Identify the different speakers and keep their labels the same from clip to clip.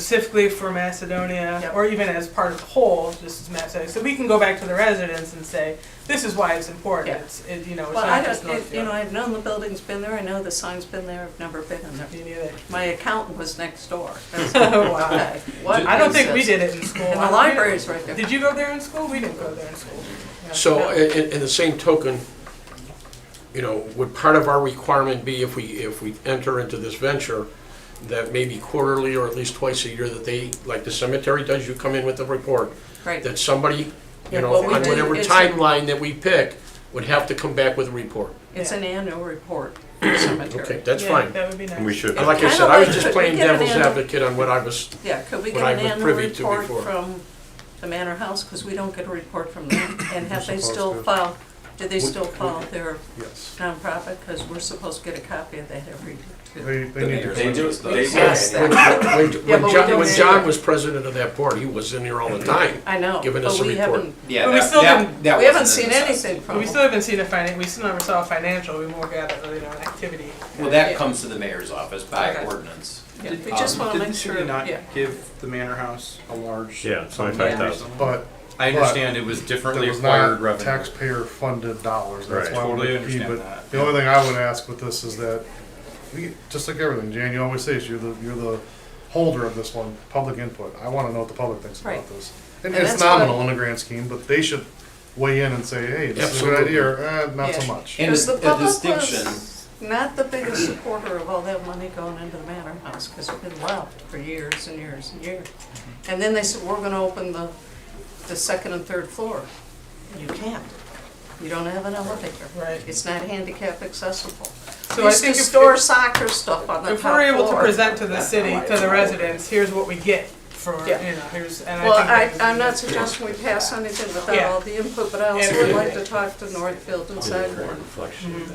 Speaker 1: specifically for Macedonia,
Speaker 2: Yep.
Speaker 1: or even as part of the whole, just as Macedonia. So we can go back to the residents and say, this is why it's important.
Speaker 2: Yeah.
Speaker 1: It's, it, you know, it's
Speaker 2: Well, I
Speaker 1: not just
Speaker 2: don't, it- you know,
Speaker 1: Northfield.
Speaker 2: I've known the building's been there, I know the sign's been there, I've never been in there.
Speaker 1: Me neither.
Speaker 2: My accountant was next door.
Speaker 1: Oh, wow.
Speaker 2: Okay, what
Speaker 1: I don't
Speaker 2: is
Speaker 1: think we
Speaker 2: this?
Speaker 1: did it in school.
Speaker 2: And the library's right there.
Speaker 1: Did you go there in school? We didn't go there in school. Yeah.
Speaker 3: So,
Speaker 1: No.
Speaker 3: in, in- in the same token, you know, would part of our requirement be if we, if we enter into this venture, that maybe quarterly or at least twice a year that they, like the cemetery does, you come in with a report,
Speaker 2: Right,
Speaker 3: that somebody,
Speaker 1: Yeah,
Speaker 3: you know,
Speaker 1: what we
Speaker 3: on
Speaker 1: do
Speaker 3: whatever
Speaker 2: is-
Speaker 3: timeline that we pick, would have to come back with a report.
Speaker 2: it's
Speaker 1: Yeah.
Speaker 2: an annual report for the
Speaker 3: Okay,
Speaker 2: cemetery.
Speaker 3: that's
Speaker 1: Yeah,
Speaker 3: fine.
Speaker 1: That would be nice.
Speaker 4: We should,
Speaker 3: Like I
Speaker 2: Kinda
Speaker 3: said, I was
Speaker 2: like-
Speaker 3: just playing
Speaker 2: we get an
Speaker 3: devil's
Speaker 2: annual-
Speaker 3: advocate on what I was,
Speaker 2: Yeah, could we get
Speaker 3: What I
Speaker 2: an
Speaker 3: was
Speaker 2: annual
Speaker 3: privy to
Speaker 2: report
Speaker 3: before.
Speaker 2: from the Manor House, because we don't get a report from them? And have they
Speaker 5: supposed
Speaker 2: still
Speaker 5: to.
Speaker 2: file, do they
Speaker 5: We-
Speaker 2: still file their
Speaker 5: Yes.
Speaker 2: nonprofit? Because we're supposed to get a copy of that every year.
Speaker 5: They, they need to.
Speaker 6: They do, they do.
Speaker 2: Yes,
Speaker 3: when, when-
Speaker 2: Yeah, but
Speaker 3: when
Speaker 2: we
Speaker 3: John,
Speaker 2: don't
Speaker 3: when
Speaker 2: see
Speaker 3: John
Speaker 2: it.
Speaker 3: was president of that board, he was in there all the time.
Speaker 2: I know,
Speaker 3: Giving us
Speaker 2: but
Speaker 3: a
Speaker 2: we
Speaker 3: report.
Speaker 2: haven't,
Speaker 6: Yeah,
Speaker 1: But we
Speaker 6: that-
Speaker 1: still
Speaker 6: that-
Speaker 1: didn't-
Speaker 6: that
Speaker 2: we haven't
Speaker 6: wasn't in
Speaker 2: seen
Speaker 6: the-
Speaker 2: anything
Speaker 1: But
Speaker 2: from
Speaker 1: we still
Speaker 2: them.
Speaker 1: haven't seen a finan, we still never saw a financial, we more got, you know, an activity.
Speaker 6: Well, that comes to the mayor's office by
Speaker 1: Okay.
Speaker 6: ordinance.
Speaker 2: Yeah, We just
Speaker 6: um,
Speaker 2: want to
Speaker 7: Didn't
Speaker 2: make
Speaker 7: the
Speaker 2: sure,
Speaker 7: city not
Speaker 2: yeah.
Speaker 7: give the Manor House a large?
Speaker 4: Yeah, it's
Speaker 7: sum of
Speaker 4: 25,000.
Speaker 7: money?
Speaker 5: But
Speaker 7: I
Speaker 4: understand it was differently
Speaker 7: there was not taxpayer-funded dollars, that's
Speaker 4: Right.
Speaker 7: why we're Totally like, "Gee," understand but that. the only thing I would ask with this is that, we, just like everything, Jan, you always say is you're the, you're the holder of this one, public input. I wanna know what the public thinks about
Speaker 2: Right.
Speaker 7: this. And
Speaker 2: And
Speaker 7: it's
Speaker 2: that's what-
Speaker 7: nominal in the grand scheme, but they should weigh in and say, hey, this is a good
Speaker 3: Absolutely.
Speaker 7: idea, or, eh, not
Speaker 2: Yeah.
Speaker 7: so much.
Speaker 6: And
Speaker 2: Because
Speaker 6: a
Speaker 2: the public
Speaker 6: distinction,
Speaker 2: was not the biggest supporter of all that money going into the Manor House, because it's been left for years and years and years.
Speaker 7: Mm-hmm.
Speaker 2: And then they said, we're gonna open the, the second and third floor. You can't. You don't have an elevator.
Speaker 1: Right.
Speaker 2: It's not handicap accessible.
Speaker 1: So
Speaker 2: We
Speaker 1: I
Speaker 2: used to
Speaker 1: think if-
Speaker 2: store soccer stuff on the top
Speaker 1: If
Speaker 2: floor.
Speaker 1: we're able to present to the city, to the residents, here's what we get for, you know,
Speaker 2: Yeah.
Speaker 1: here's, and I
Speaker 2: Well,
Speaker 1: think.
Speaker 2: I,
Speaker 1: that would be
Speaker 2: I'm not
Speaker 1: nice.
Speaker 2: suggesting we pass anything without
Speaker 1: Yeah.
Speaker 2: all the input, but I also
Speaker 1: Yeah.
Speaker 2: would like to talk to Northfield and Sidebourne,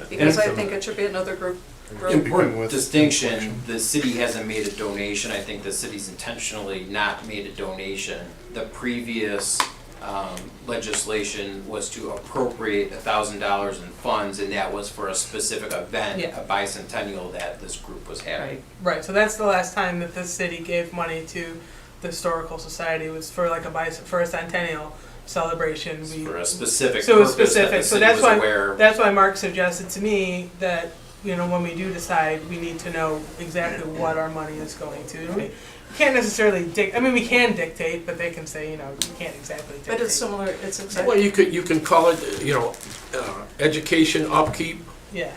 Speaker 2: because I think it should be another group, group
Speaker 7: Speaking with-
Speaker 6: distinction, the city hasn't made a donation, I think the city's intentionally not made a donation. The previous um, legislation was to appropriate a thousand dollars in funds, and that was for a specific event,
Speaker 1: Yeah.
Speaker 6: a bicentennial that this group was having.
Speaker 2: right?
Speaker 1: Right, so that's the last time that the city gave money to the historical society was for like a bice, for a centennial celebration. We-
Speaker 6: For a specific
Speaker 1: So it's
Speaker 6: purpose that the
Speaker 1: specific, so
Speaker 6: city
Speaker 1: that's
Speaker 6: was
Speaker 1: why,
Speaker 6: aware.
Speaker 1: that's why Mark suggested to me that, you know, when we do decide, we need to know exactly what our money is going to. And We Can't necessarily dic, I mean, we can dictate, but they can say, you know, you can't exactly dictate.
Speaker 2: But it's similar, it's
Speaker 3: Well,
Speaker 2: exactly,
Speaker 3: you could, you can call it, you know, uh, education, upkeep,
Speaker 1: Yeah,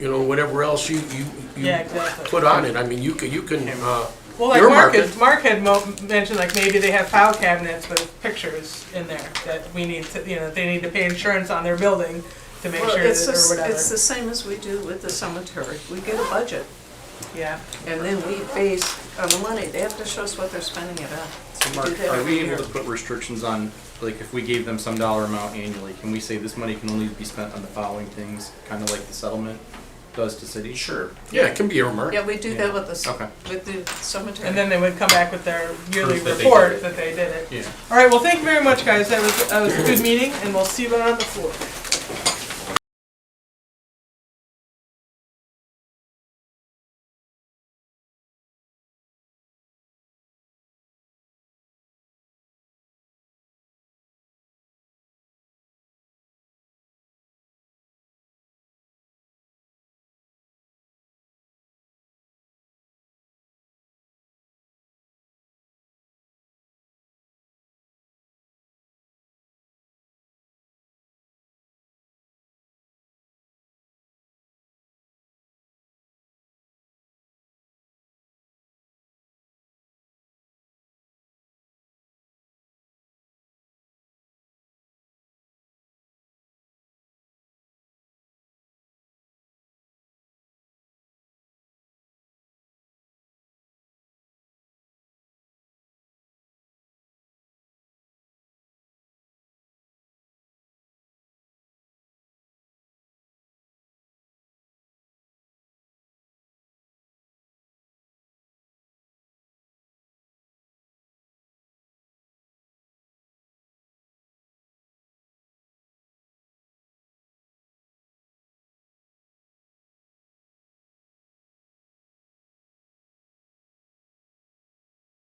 Speaker 3: you know, whatever else you, you,
Speaker 1: yeah,
Speaker 3: you
Speaker 1: exactly.
Speaker 3: put on it. I mean, you can, you can, uh,
Speaker 1: Well, like
Speaker 3: Your
Speaker 1: Mark, had-
Speaker 3: market.
Speaker 1: Mark had mo- mentioned, like maybe they have file cabinets with pictures in there that we need to, you know, they need to pay insurance on their building to make
Speaker 2: well,
Speaker 1: sure
Speaker 2: it's,
Speaker 1: that,
Speaker 2: the
Speaker 1: or
Speaker 2: s-
Speaker 1: whatever.
Speaker 2: it's the same as we do with the cemetery. We get a budget,
Speaker 1: yeah.
Speaker 2: and then we base on the money. They have to show us what they're spending it on.
Speaker 7: So
Speaker 2: We do
Speaker 7: Mark,
Speaker 2: that
Speaker 7: are
Speaker 2: every
Speaker 7: we
Speaker 2: year.
Speaker 7: able
Speaker 5: to put restrictions on, like, if we gave them some dollar amount annually, can we say this money can only be spent on the following things, kind of like the settlement does to cities?
Speaker 6: Sure.
Speaker 3: yeah, it can be earmarked.
Speaker 2: Yeah, we do that with the, c-
Speaker 5: Okay.
Speaker 2: with the cemetery.
Speaker 1: And then they would come back with their yearly
Speaker 5: Proof that they did
Speaker 1: report
Speaker 5: it.
Speaker 1: that they did it.
Speaker 5: Yeah.
Speaker 1: All right. Well, thank you very much, guys. That was that was a good meeting, and we'll see you on the floor.